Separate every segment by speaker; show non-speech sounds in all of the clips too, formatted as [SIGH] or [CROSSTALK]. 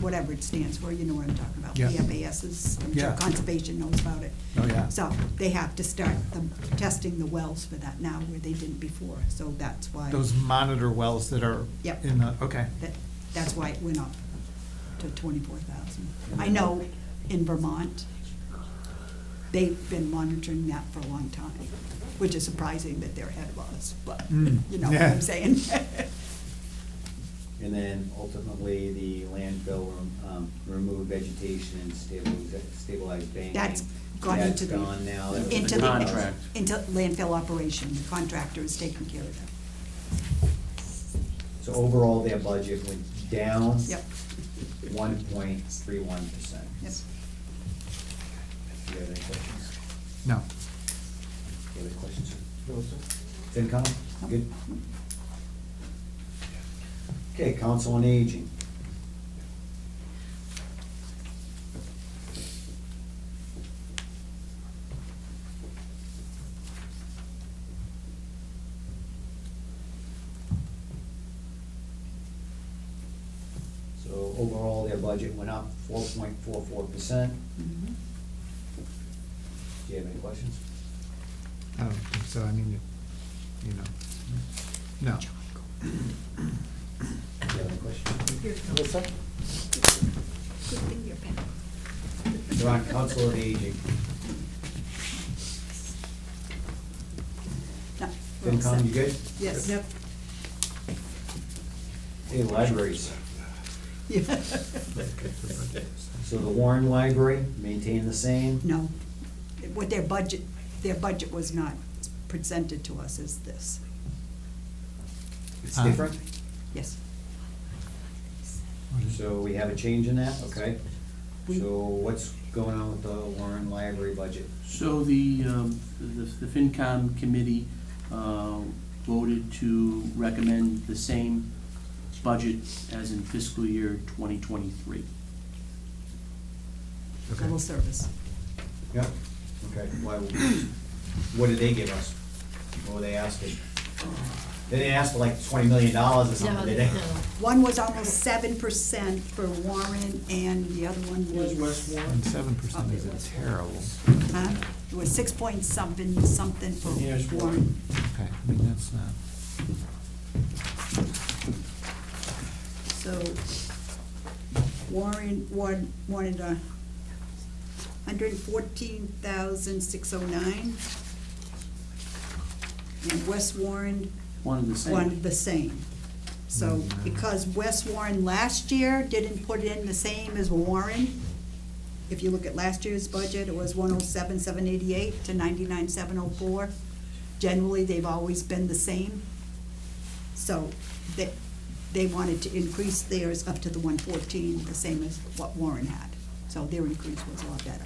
Speaker 1: whatever it stands for, you know what I'm talking about.
Speaker 2: Yeah.
Speaker 1: The FASs, I'm sure
Speaker 2: Yeah.
Speaker 1: Conservation knows about it.
Speaker 2: Oh, yeah.
Speaker 1: So they have to start the, testing the wells for that now where they didn't before, so that's why,
Speaker 2: Those monitor wells that are
Speaker 1: Yep.
Speaker 2: in the, okay.
Speaker 1: that, that's why it went up to twenty-four thousand. I know in Vermont, they've been monitoring that for a long time, which is surprising that they're ahead of us, but,
Speaker 2: Mm,
Speaker 1: you know what
Speaker 2: yeah.
Speaker 1: I'm saying? [LAUGHS]
Speaker 3: And then ultimately, the landfill um, remove vegetation and stabilize, stabilize banking.
Speaker 1: That's gone into the.
Speaker 3: That's gone now. That was
Speaker 1: into
Speaker 3: the
Speaker 1: the-
Speaker 4: contract.
Speaker 1: Into landfill operation, the contractor is taking care of that.
Speaker 3: So overall, their budget went down.
Speaker 1: Yep,
Speaker 3: One point three one percent.
Speaker 1: yep.
Speaker 3: Do you have any questions?
Speaker 2: No.
Speaker 3: Do you have any questions? sir? FinCom, good? Okay, Council on Aging. So overall, their budget went up four point four four percent.
Speaker 1: Mhm.
Speaker 3: Do you have any questions?
Speaker 2: I don't think Oh, So, I mean, it- you know, no.
Speaker 3: Do you have any questions?
Speaker 1: Good thing you're back.
Speaker 3: They're on Council on Aging.
Speaker 1: No, we're all
Speaker 3: FinCom,
Speaker 1: set.
Speaker 3: you good?
Speaker 1: Yes. Yep.
Speaker 3: Hey, libraries.
Speaker 1: Yeah.
Speaker 3: So the Warren Library, maintain the same?
Speaker 1: [LAUGHS] No, what their budget, their budget was not presented to us as this,
Speaker 3: It's
Speaker 2: Uh.
Speaker 3: different?
Speaker 1: yes.
Speaker 3: So we have a change in that, okay?
Speaker 1: We-
Speaker 3: So what's going on with the Warren Library budget?
Speaker 4: So the, um, the the FinCom committee uh, voted to recommend the same budget as in fiscal year 2023.
Speaker 2: Okay.
Speaker 1: Civil service.
Speaker 3: Yep. Okay, why, what did they give us? What were they asking? They didn't ask for like twenty million dollars or
Speaker 5: No,
Speaker 3: something, did
Speaker 5: no.
Speaker 3: they?
Speaker 1: One was almost seven percent for Warren, and the other one was.
Speaker 2: And seven percent isn't terrible.
Speaker 1: Huh? It was six point something, something for
Speaker 4: Here's one.
Speaker 1: Warren.
Speaker 2: Okay, I mean, that's not,
Speaker 1: So Warren wan- wanted a uh, hundred and fourteen thousand six oh nine. And West Warren
Speaker 4: One of the same.
Speaker 1: wanted the same. So
Speaker 3: Mm-hmm.
Speaker 2: Mhm.
Speaker 1: because West Warren last year didn't put in the same as Warren, if you look at last year's budget, it was one oh seven, seven eighty-eight to ninety-nine, seven oh four. Generally, they've always been the same. So they, they wanted to increase theirs up to the one fourteen, the same as what Warren had. So their increase was a lot better,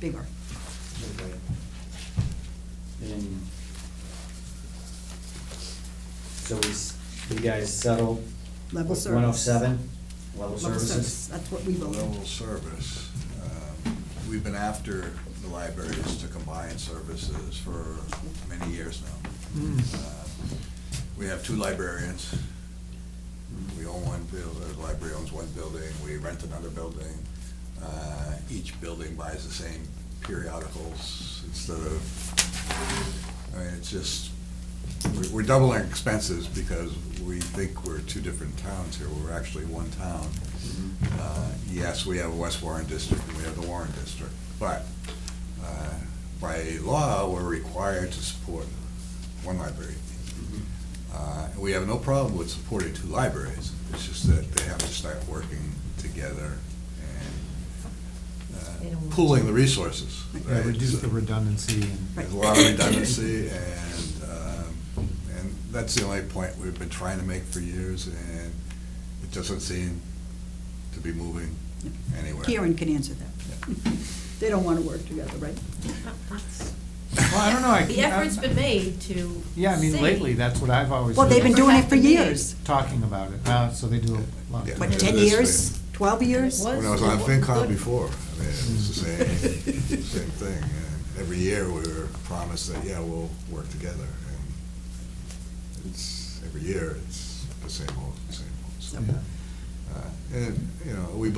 Speaker 1: bigger.
Speaker 3: Okay. And so we, s- you guys settled?
Speaker 1: Level service.
Speaker 3: One oh seven, level
Speaker 1: Level service,
Speaker 3: services?
Speaker 1: That's what we voted.
Speaker 6: Level service. Um, We've been after the libraries to combine services for many years now.
Speaker 2: Hmm.
Speaker 6: Um, We have two librarians. We own one building, the library owns one building, we rent another building. Uh, Each building buys the same periodicals instead of, I mean, it's just, we're- we're doubling expenses because we think we're two different towns here, we're actually one town. Uh, Yes, we have a West Warren district and we have the Warren district, but uh, by law, we're required to support one library. Uh, We have no problem with supporting two libraries, it's just that they have to start working together
Speaker 5: They
Speaker 6: and
Speaker 5: don't want
Speaker 6: uh,
Speaker 5: to.
Speaker 6: pooling the resources.
Speaker 2: yeah,
Speaker 6: right?
Speaker 2: reduce the redundancy
Speaker 1: Right.
Speaker 2: and,
Speaker 6: There's a lot of redundancy, and, um, and that's the only point we've been trying to make for years, and it doesn't seem to be moving anywhere.
Speaker 1: Karen can answer that. They don't wanna work together, right?
Speaker 2: well, I don't know,
Speaker 6: [LAUGHS]
Speaker 2: I.
Speaker 5: The effort's been made to.
Speaker 2: Yeah, I mean,
Speaker 5: see.
Speaker 2: lately, that's what I've always.
Speaker 1: Well, they've been doing it for years.
Speaker 2: Talking about it, uh, so they do a lot.
Speaker 6: Yeah.
Speaker 1: What, ten years, twelve years?
Speaker 5: What?
Speaker 6: When I was on
Speaker 5: What-
Speaker 6: FinCom
Speaker 5: what-
Speaker 6: before, I mean, it was the same, [LAUGHS] same thing. And every year, we were promised that, yeah, we'll work together. And it's, every year, it's the same old, same old. So,
Speaker 2: Yeah.
Speaker 6: uh, And, you know, we